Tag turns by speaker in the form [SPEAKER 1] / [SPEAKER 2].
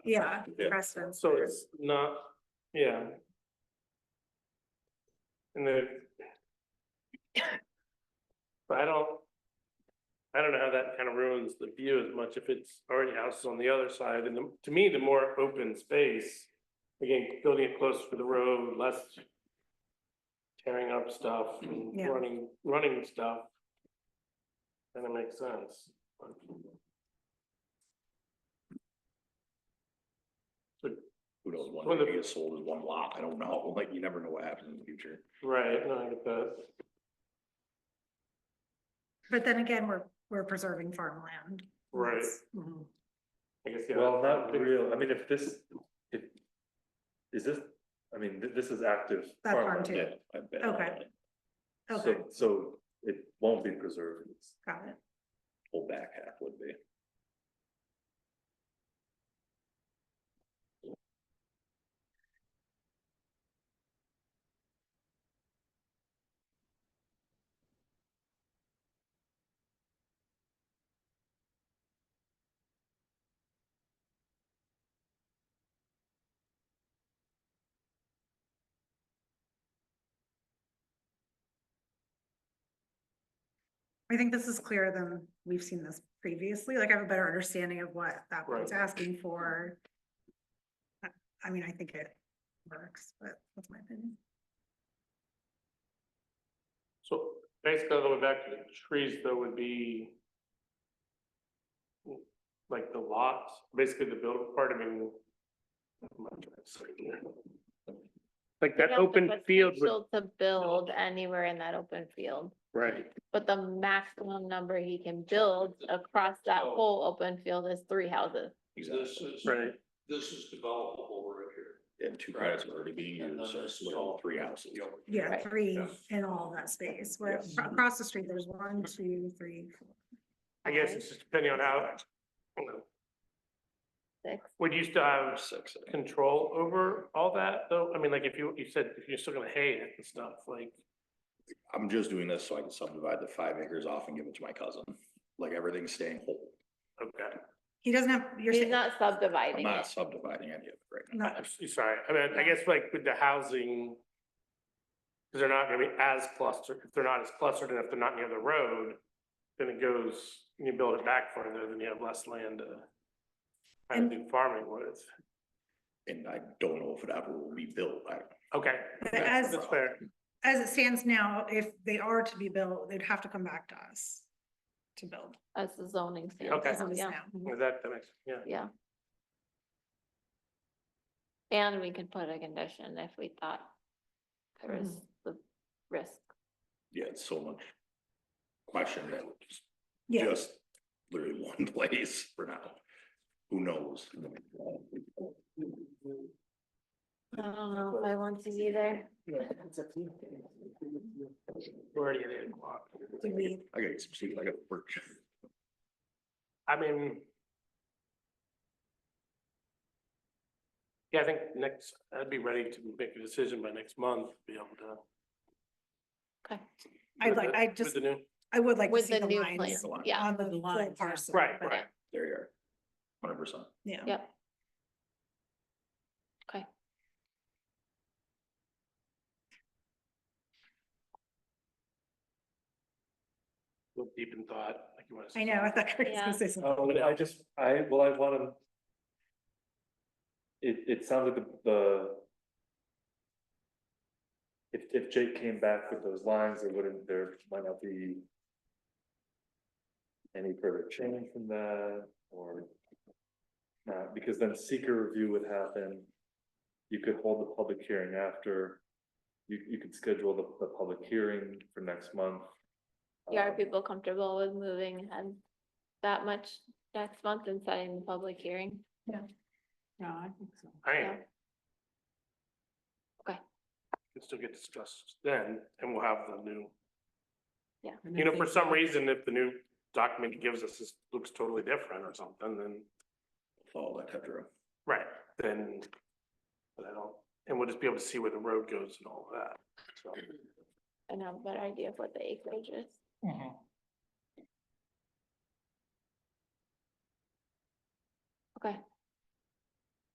[SPEAKER 1] Yeah,
[SPEAKER 2] Yeah.
[SPEAKER 1] Preston.
[SPEAKER 3] So it's not, yeah. And the. But I don't. I don't know how that kind of ruins the view as much if it's already houses on the other side, and the- to me, the more open space. Again, building it closer to the road, less. Tearing up stuff and
[SPEAKER 1] Yeah.
[SPEAKER 3] running, running stuff. Kind of makes sense.
[SPEAKER 2] Who knows, one
[SPEAKER 3] Well,
[SPEAKER 2] day
[SPEAKER 3] the-
[SPEAKER 2] it gets sold as one lot, I don't know, like, you never know what happens in the future.
[SPEAKER 3] Right, no, I get that.
[SPEAKER 1] But then again, we're, we're preserving farmland.
[SPEAKER 3] Right.
[SPEAKER 1] It's- mhm.
[SPEAKER 3] I guess, yeah.
[SPEAKER 4] Well, not real, I mean, if this, if, is this, I mean, th- this is active.
[SPEAKER 1] That's farm
[SPEAKER 4] farmland.
[SPEAKER 1] too.
[SPEAKER 2] Yeah, I bet.
[SPEAKER 1] Okay.
[SPEAKER 4] So,
[SPEAKER 1] Okay,
[SPEAKER 4] so it won't be preserved, It's-
[SPEAKER 1] got it.
[SPEAKER 2] Whole back half would be.
[SPEAKER 1] I think this is clearer than we've seen this previously. Like I have a better understanding of what that one's
[SPEAKER 3] Right.
[SPEAKER 1] asking for. I I mean, I think it works, but that's my opinion.
[SPEAKER 3] So basically, all the way back to the trees, though, would be like the lots, basically the buildable part, I mean. Like that
[SPEAKER 5] We have the potential To build anywhere in that open field,
[SPEAKER 3] right,
[SPEAKER 5] but the maximum number he can build across that
[SPEAKER 6] Oh.
[SPEAKER 5] whole open field is three houses.
[SPEAKER 6] This
[SPEAKER 2] Exactly.
[SPEAKER 6] is,
[SPEAKER 3] right.
[SPEAKER 6] this is developable right here.
[SPEAKER 2] And two credits are already being
[SPEAKER 6] And then
[SPEAKER 2] used, so
[SPEAKER 6] this
[SPEAKER 2] it's
[SPEAKER 6] is
[SPEAKER 2] all
[SPEAKER 6] all-
[SPEAKER 2] three houses.
[SPEAKER 1] Yeah,
[SPEAKER 5] Right.
[SPEAKER 1] three
[SPEAKER 6] Yeah.
[SPEAKER 1] in all of that space. Where
[SPEAKER 2] Yes.
[SPEAKER 1] ac- across the street, there's one, two, three, four.
[SPEAKER 3] I guess
[SPEAKER 5] five,
[SPEAKER 3] it's just depending on how, you know,
[SPEAKER 5] Six,
[SPEAKER 3] would you still have
[SPEAKER 2] Six. I think.
[SPEAKER 3] control over all that, though? I mean, like if you, you said, if you're still gonna hay it and stuff, like,
[SPEAKER 2] I'm just doing this so I can subdivide the five acres off and give it to my cousin, like everything's staying whole.
[SPEAKER 3] okay.
[SPEAKER 1] He doesn't have, you're
[SPEAKER 5] he's
[SPEAKER 1] saying,
[SPEAKER 5] not
[SPEAKER 2] I'm
[SPEAKER 5] subdividing
[SPEAKER 2] not
[SPEAKER 5] it.
[SPEAKER 2] subdividing any of it right now.
[SPEAKER 1] not,
[SPEAKER 3] I'm s- sorry, I mean, I guess like with the housing. Cause they're not gonna be as clustered, if they're not as clustered and if they're not near the road, then it goes, you build it back further, then you have less land to. Kind
[SPEAKER 1] And-
[SPEAKER 3] of do farming with,
[SPEAKER 2] And I don't know if it ever will be built, I,
[SPEAKER 3] okay,
[SPEAKER 1] but
[SPEAKER 2] that's-
[SPEAKER 1] as,
[SPEAKER 3] that's fair,
[SPEAKER 1] as it stands now, if they are to be built, they'd have to come back to us to build.
[SPEAKER 5] That's the zoning
[SPEAKER 3] Okay.
[SPEAKER 5] standard,
[SPEAKER 1] as it is
[SPEAKER 5] yeah,
[SPEAKER 1] now.
[SPEAKER 3] Is that, that makes, yeah,
[SPEAKER 5] yeah. And we could put a condition if we thought there was the risk.
[SPEAKER 2] yeah, it's so much. Question that was
[SPEAKER 1] Yeah,
[SPEAKER 2] just literally one place for now. Who knows?
[SPEAKER 5] I don't know if I want to be there.
[SPEAKER 3] we're already at eight o'clock.
[SPEAKER 1] do we,
[SPEAKER 2] I gotta get some sleep, I gotta work.
[SPEAKER 3] I mean. Yeah, I think next, I'd be ready to make a decision by next month, be able to.
[SPEAKER 5] Okay.
[SPEAKER 1] I'd
[SPEAKER 3] with
[SPEAKER 1] like,
[SPEAKER 3] the-
[SPEAKER 1] I
[SPEAKER 3] with
[SPEAKER 1] just,
[SPEAKER 3] the new-
[SPEAKER 1] I would like to
[SPEAKER 5] With
[SPEAKER 1] see
[SPEAKER 5] the
[SPEAKER 1] the
[SPEAKER 5] new plan,
[SPEAKER 1] lines
[SPEAKER 2] line.
[SPEAKER 5] yeah,
[SPEAKER 1] on the full parcel.
[SPEAKER 3] Right,
[SPEAKER 1] but-
[SPEAKER 5] right.
[SPEAKER 2] There you are. Hundred percent.
[SPEAKER 1] Yeah.
[SPEAKER 5] yep. Okay.
[SPEAKER 3] look deep in thought, like you want to.
[SPEAKER 1] I know, I thought Chris
[SPEAKER 5] Yeah.
[SPEAKER 1] was gonna say something.
[SPEAKER 4] Um, I just, I, well, I wanna. It, it sounded the, the. If, if Jake came back with those lines, there wouldn't, there might not be. Any further change from that or. Not, because then seeker review would happen. You could hold the public hearing after. You, you could schedule the, the public hearing for next month.
[SPEAKER 5] Yeah, are
[SPEAKER 4] Um,
[SPEAKER 5] people comfortable with moving ahead that much next month and setting the public hearing?
[SPEAKER 1] No, I think so.
[SPEAKER 3] I
[SPEAKER 5] Yeah.
[SPEAKER 3] am.
[SPEAKER 5] Okay.
[SPEAKER 3] Can still get discussed then, and we'll have the new,
[SPEAKER 1] And
[SPEAKER 3] you know,
[SPEAKER 1] if
[SPEAKER 3] for
[SPEAKER 1] they-
[SPEAKER 3] some reason, if the new document he gives us is, looks totally different or something, then,
[SPEAKER 2] Follow that Tetra.
[SPEAKER 3] right, then. But I don't, and we'll just be able to see where the road goes and all of that, so.
[SPEAKER 5] And have a better idea of what the acreage is. Okay.